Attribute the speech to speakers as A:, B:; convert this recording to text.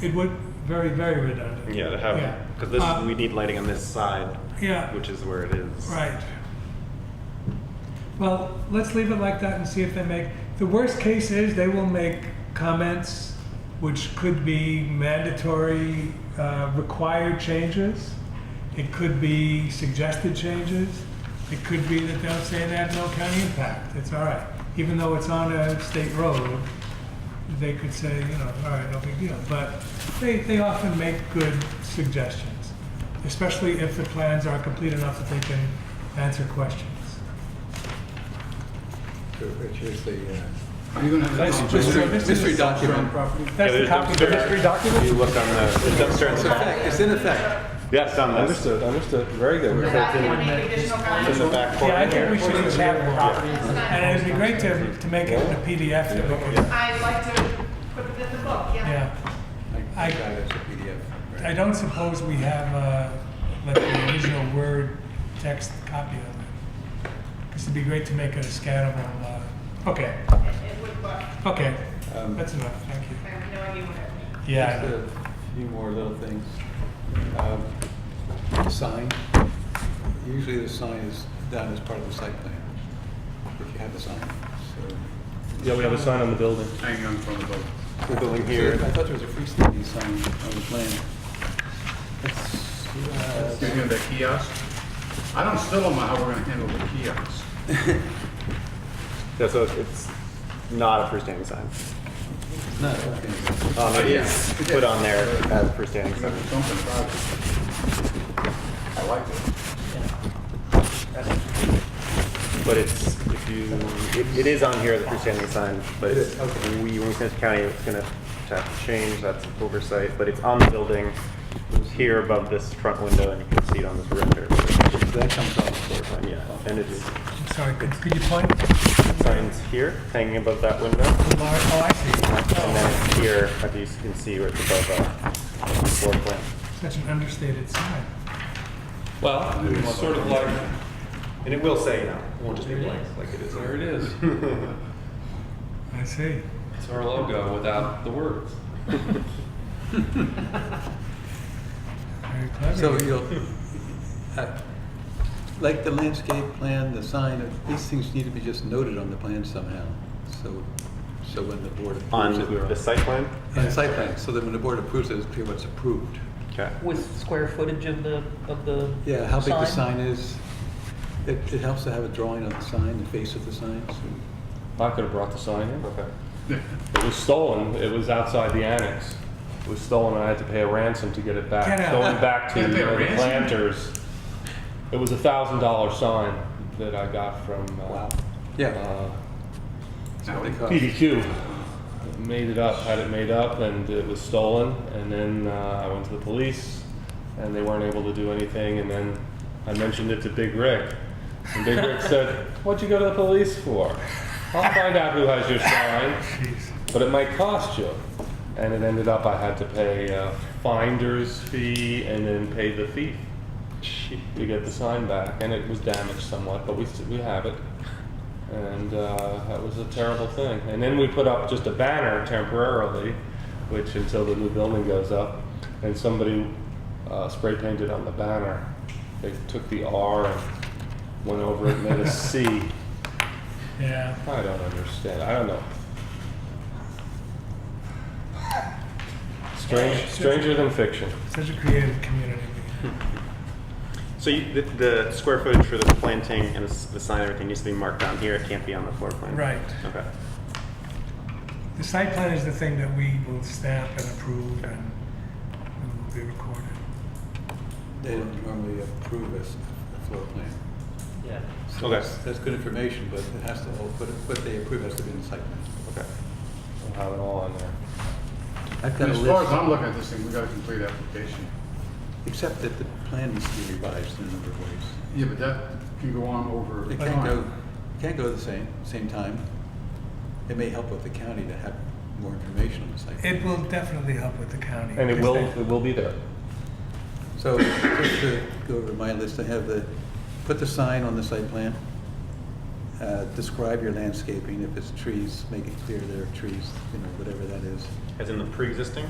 A: It would, very, very redundant.
B: Yeah, to
A: Yeah.
B: have, because this,
A: Uh,
B: we need lighting on this side,
A: Yeah,
B: which is where it is.
A: right. Well, let's leave it like that and see if they make, the worst case is they will make comments which could be mandatory, uh, required changes. It could be suggested changes. It could be that they'll say they have no county impact. It's all right. Even though it's on a state road, they could say, you know, all right, no big deal. But they, they often make good suggestions, especially if the plans are complete enough that they can answer questions.
C: Which is the, uh,
D: Are you gonna have
C: Nice.
D: a
C: Just
D: mystery,
C: for-
D: mystery
C: just for-
D: document?
B: Yeah,
A: That's the
B: there's
A: copy of the
B: dumpster-
A: history document?
B: If you look on the, there's dumpster in
C: it's
B: the
C: a
B: back.
C: fact, it's in effect.
B: Yes, on this,
C: Understood, understood, very good.
E: Without any additional
B: it's in
E: comments?
B: the back
A: Yeah, I
B: corner
A: think we
B: here.
A: should each have one.
E: It's
A: And
E: not-
A: it'd be great to, to make it in a PDF so we could,
E: I'd like to put it in the book, yeah.
A: yeah. I-
C: I got it as a PDF.
A: I don't suppose we have, uh, like the original Word text copy of it. This would be great to make a scannable, uh, okay,
E: It it would work,
A: okay,
C: Um,
A: that's enough, thank you.
E: I have no idea what it would be.
A: Yeah, I know.
C: Just a few more little things. Um, the Sign, usually the sign is done as part of the site plan, if you have a sign, so.
F: Yeah, we have a sign on the building.
D: Hanging on from the boat.
B: The building here,
C: I thought there was a freestanding sign on the plan. It's, uh,
D: Speaking of the kiosk, I don't, still don't know how we're gonna handle the kiosk.
B: yeah, so it's not a freestanding sign.
C: it's not a freestanding.
B: Um, it is put on there as freestanding
D: Something
B: sign.
D: about it. I like it.
B: But it's, if you, it, it is on here as a freestanding sign, but it's, we, when we send it to county, it's gonna have to change, that's oversight, but it's on the building here above this front window, and you can see it on this render.
C: That comes off the floor plan.
B: Yeah, and it's
A: I'm sorry, could, could you point?
B: signs here, hanging above that window,
A: The lar- Oh, I see. Oh,
B: and then it's here, as you can see, where it's above, uh, the floor plan.
A: Such an understated sign.
G: Well, it's sort of like,
B: And it will say, you know, it won't just be blank, like it is.
G: there it is.
A: I see.
G: It's our logo without the words.
A: Very clever.
C: So you'll, uh, like the landscape plan, the sign, these things need to be just noted on the plan somehow. So, so when the board approves it.
B: On the site plan?
C: On the site plan, so that when the board approves it, it's clear what's approved.
B: Okay.
H: With square footage of the, of the.
C: Yeah, how big the sign is. It, it helps to have a drawing of the sign, the face of the sign. so-
G: I could have brought the sign in.
B: Okay.
G: It was stolen. It was outside the annex. It was stolen. I had to pay a ransom to get it back.
A: Get out.
G: Going back to uh, the planters, it was a thousand dollar sign that I got from uh,
C: Yeah.
G: uh,
C: that's what it costs.
G: PDQ. Made it up, had it made up, and it was stolen. And then uh, I went to the police, and they weren't able to do anything. And then I mentioned it to Big Rick, and Big Rick said, "What'd you go to the police for? I'll find out who has your sign, but it might cost you." And it ended up I had to pay a finder's fee and then pay the thief to get the sign back. And it was damaged somewhat, but we s- we have it and uh, that was a terrible thing. And then we put up just a banner temporarily, which until the new building goes up, and somebody uh, spray painted on the banner. They took the R and went over it and made a C.
A: Yeah.
G: I don't understand. I don't know. Strange, stranger than fiction.
A: Such a creative community.
B: So you, the, the square footage for the planting and the s- the sign, and everything needs to be marked down here, it can't be on the floor plan?
A: Right.
B: Okay.
A: The site plan is the thing that we will stamp and approve and it will be recorded.
C: They don't normally approve a s- a floor plan.
H: Yeah.
C: So
B: Okay.
C: that's- That's good information, but it has to, all- but what they approve has to be in the site plan.
B: Okay.
G: We'll have it all on there.
C: I've got a
D: As far as
C: list,
D: I'm looking at this thing, we got a complete application.
C: except that the plan needs to be revised in a number of ways.
D: Yeah, but that can go on over
C: It can't go,
D: time.
C: it can't go at the same, same time. It may help with the county to have more information on the site.
A: It will definitely help with the county.
G: And it
A: because
G: will,
A: they-
G: it will be there.
C: So just to go over my list, I have the, put the sign on the site plan. Uh, Describe your landscaping, if it's trees, make it clear there are trees, you know, whatever that is.
B: As in the pre-existing?